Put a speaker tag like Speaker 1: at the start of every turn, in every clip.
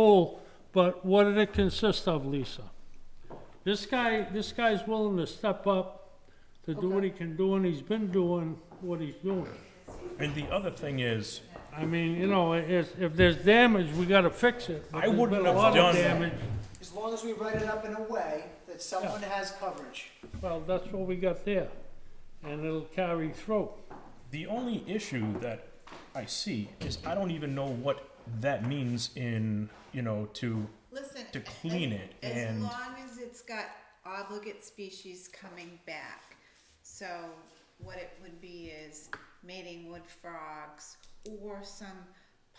Speaker 1: pool, but what did it consist of, Lisa? This guy, this guy's willing to step up to do what he can do, and he's been doing what he's doing.
Speaker 2: And the other thing is,
Speaker 1: I mean, you know, if, if there's damage, we gotta fix it. but
Speaker 2: I
Speaker 1: there's
Speaker 2: wouldn't
Speaker 1: been a
Speaker 2: have
Speaker 1: lot of
Speaker 2: done-
Speaker 1: damage.
Speaker 3: As long as we write it up in a way that someone has coverage.
Speaker 1: Well, that's what we got there, and it'll carry through.
Speaker 2: the only issue that I see is I don't even know what that means in, you know, to,
Speaker 4: Listen.
Speaker 2: to clean it
Speaker 4: as-
Speaker 2: and-
Speaker 4: As long as it's got obligate species coming back. So what it would be is mating wood frogs or some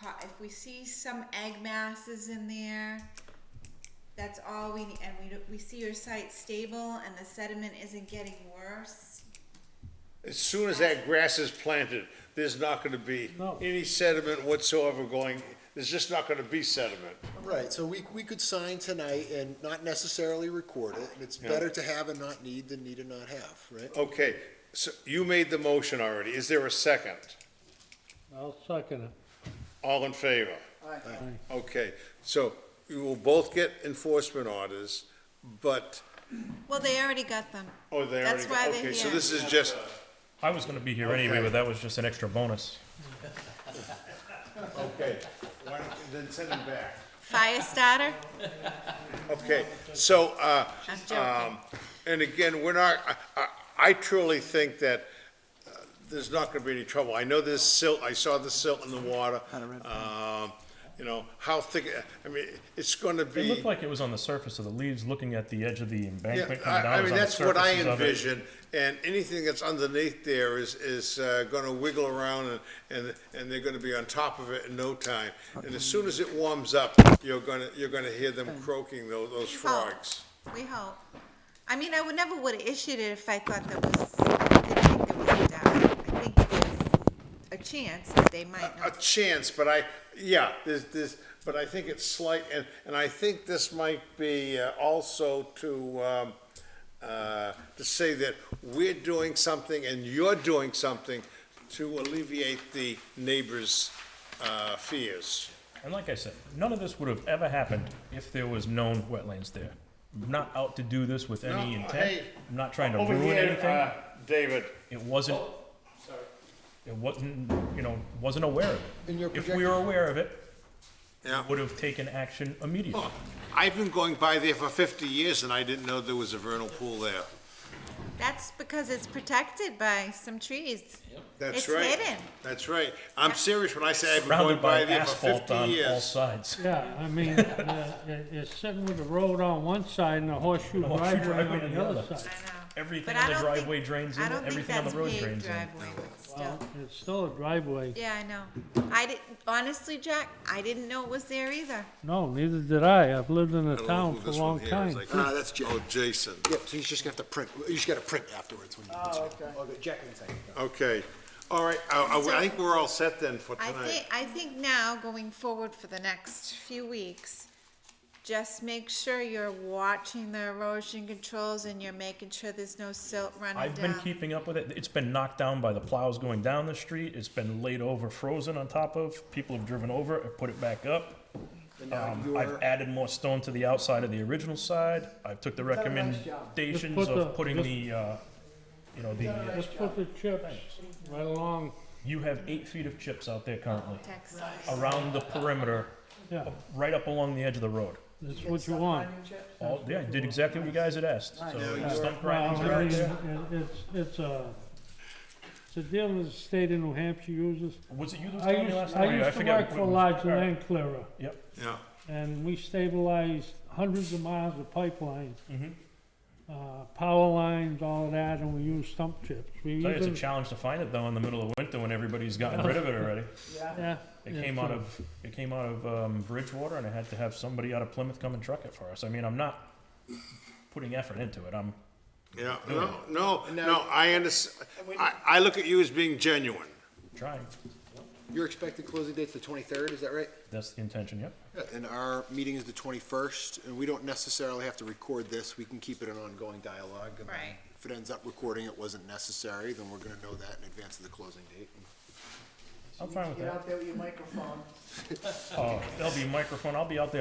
Speaker 4: pot, if we see some egg masses in there, that's all we need, and we, don't- we see your site stable and the sediment isn't getting worse.
Speaker 5: As soon as that grass is planted, there's not gonna be
Speaker 1: No.
Speaker 5: any sediment whatsoever going, there's just not gonna be sediment.
Speaker 6: Right, so we, we could sign tonight and not necessarily record it, and it's better to have and not need than need and not have, right?
Speaker 5: Okay, so you made the motion already, is there a second?
Speaker 1: I'll second it.
Speaker 5: All in favor?
Speaker 6: Aye.
Speaker 5: Okay, so you will both get enforcement orders, but,
Speaker 4: Well, they already got them.
Speaker 5: oh, they already,
Speaker 4: That's why
Speaker 5: got-
Speaker 4: they're
Speaker 5: okay, so
Speaker 4: here.
Speaker 5: this is just,
Speaker 2: I was gonna be here anyway,
Speaker 5: Okay.
Speaker 2: but that was just an extra bonus.
Speaker 5: okay, why don't you then send them back.
Speaker 4: Fire starter?
Speaker 5: Okay, so, uh,
Speaker 4: I'm
Speaker 5: um,
Speaker 4: joking.
Speaker 5: and again, we're not, I- I, I truly think that uh, there's not gonna be any trouble. I know there's silt, I saw the silt in the water. Um, you know, how thick, I mean, it's gonna
Speaker 2: It
Speaker 5: be.
Speaker 2: looked like it was on the surface of the leaves, looking at the edge of the
Speaker 5: Yeah,
Speaker 2: embankment coming
Speaker 5: I,
Speaker 2: down.
Speaker 5: I
Speaker 2: it was on
Speaker 5: mean,
Speaker 2: the
Speaker 5: that's what I
Speaker 2: surfaces of it.
Speaker 5: envision, and anything that's underneath there is, is, uh, gonna wiggle around and, and, and they're gonna be on top of it in no time. And as soon as it warms up, you're gonna, you're gonna hear them croaking, those, those frogs.
Speaker 4: Oh, We hope. I mean, I would never would have issued it if I thought there was, I didn't think there was a doubt. I think there's a chance that they might
Speaker 5: a
Speaker 4: not.
Speaker 5: chance, but I, yeah, there's, there's, but I think it's slight, and, and I think this might be uh, also to, um, uh, to say that we're doing something and you're doing something to alleviate the neighbors', uh, fears.
Speaker 2: And like I said, none of this would have ever happened if there was known wetlands there. I'm not out to do this with any
Speaker 5: No,
Speaker 2: intent.
Speaker 5: hey, uh,
Speaker 2: I'm not trying to ruin anything.
Speaker 5: David.
Speaker 2: It wasn't.
Speaker 5: Oh,
Speaker 2: It wasn't, you know, wasn't aware of
Speaker 6: And
Speaker 2: it.
Speaker 6: you're
Speaker 2: If we were aware of it,
Speaker 5: Yeah,
Speaker 2: would have taken action immediately.
Speaker 5: I've been going by there for fifty years and I didn't know there was a vernal pool there.
Speaker 4: That's because it's protected by some trees.
Speaker 5: That's
Speaker 4: It's
Speaker 5: right.
Speaker 4: hidden.
Speaker 5: That's right. I'm serious when I say I've been going
Speaker 2: Surrounded
Speaker 5: by
Speaker 2: by
Speaker 5: there for
Speaker 2: asphalt
Speaker 5: fifty
Speaker 2: on all
Speaker 5: years.
Speaker 2: sides.
Speaker 1: Yeah, I mean, uh, it- it's sitting with the road on one side and the horseshoe
Speaker 2: The horseshoe
Speaker 1: driveway
Speaker 2: driveway
Speaker 1: on the other
Speaker 4: I
Speaker 1: side.
Speaker 4: know.
Speaker 2: Everything
Speaker 4: But
Speaker 2: on
Speaker 4: I
Speaker 2: the
Speaker 4: don't think-
Speaker 2: driveway drains in,
Speaker 4: I don't think
Speaker 2: everything on the
Speaker 4: that's
Speaker 2: road
Speaker 4: paved
Speaker 2: drains in.
Speaker 4: driveway, but still.
Speaker 1: It's still a driveway.
Speaker 4: Yeah, I know. I didn't, honestly, Jack, I didn't know it was there either.
Speaker 1: No, neither did I. I've lived in the
Speaker 5: I don't know
Speaker 1: town
Speaker 5: who
Speaker 1: for a
Speaker 5: this one
Speaker 1: long
Speaker 5: here is.
Speaker 1: time.
Speaker 5: Like,
Speaker 6: Ah, that's Jack.
Speaker 5: Oh, Jason.
Speaker 6: Yep, so he's just gonna have to print, you just gotta print afterwards when you.
Speaker 3: Oh, okay.
Speaker 6: Okay, Jack can sign it.
Speaker 5: Okay, all right, I, I- I think we're all set then for
Speaker 4: I
Speaker 5: tonight.
Speaker 4: think, I think now, going forward for the next few weeks, just make sure you're watching the erosion controls and you're making sure there's no silt running
Speaker 2: I've been
Speaker 4: down.
Speaker 2: keeping up with it. It's been knocked down by the plows going down the street. It's been laid over, frozen on top of. People have driven over it, and put it back up. Um, I've added more stone to the outside of the original side. I've took the
Speaker 3: a nice
Speaker 1: Just
Speaker 2: recommendations
Speaker 1: put
Speaker 2: of
Speaker 1: the-
Speaker 2: putting
Speaker 1: just-
Speaker 2: the, uh, you know, the.
Speaker 1: Just put the chips right along,
Speaker 2: You have eight feet of chips out there currently
Speaker 4: Text.
Speaker 2: around the perimeter,
Speaker 1: yeah,
Speaker 2: right up along the edge of the road.
Speaker 1: that's what you want.
Speaker 2: All, yeah, I did exactly what you guys had asked. So
Speaker 1: Well,
Speaker 2: stump grindings are
Speaker 1: I
Speaker 2: out
Speaker 1: mean,
Speaker 2: there.
Speaker 1: it- it's, it's a, it's a deal that the state of New Hampshire uses.
Speaker 2: Was it you that was
Speaker 1: I
Speaker 2: telling me
Speaker 1: used,
Speaker 2: last time? or
Speaker 1: I
Speaker 2: you?
Speaker 1: used to
Speaker 2: forget
Speaker 1: work
Speaker 2: what
Speaker 1: for
Speaker 2: was-
Speaker 1: Large
Speaker 2: all right.
Speaker 1: Land Clearer,
Speaker 2: Yep.
Speaker 5: Yeah,
Speaker 1: and we stabilized hundreds of miles of pipeline.
Speaker 2: Mm-hmm.
Speaker 1: Uh, power lines, all of that, and we used stump chips. We
Speaker 2: Tell you, it's a
Speaker 1: even-
Speaker 2: challenge to find it though in the middle of winter when everybody's gotten rid of it already.
Speaker 1: Yeah.
Speaker 2: It
Speaker 1: yeah,
Speaker 2: came out
Speaker 1: so-
Speaker 2: of it came out of um, Bridgewater, and I had to have somebody out of Plymouth come and truck it for us. I mean, I'm not putting effort into it. I'm
Speaker 5: yeah, no, no, no, I under, I, I look at you as being genuine.
Speaker 2: trying.
Speaker 6: Your expected closing date's the twenty-third, is that right?
Speaker 2: That's the intention. Yep.
Speaker 6: Yeah, And our meeting is the twenty-first, and we don't necessarily have to record this, we can keep it an ongoing dialogue. and then
Speaker 4: Right.
Speaker 6: If it ends up recording it wasn't necessary, then we're gonna know that in advance of the closing date.
Speaker 2: I'm fine with
Speaker 3: Get
Speaker 2: that.
Speaker 3: out there with your microphone.
Speaker 2: Oh, there'll be a microphone. I'll be out there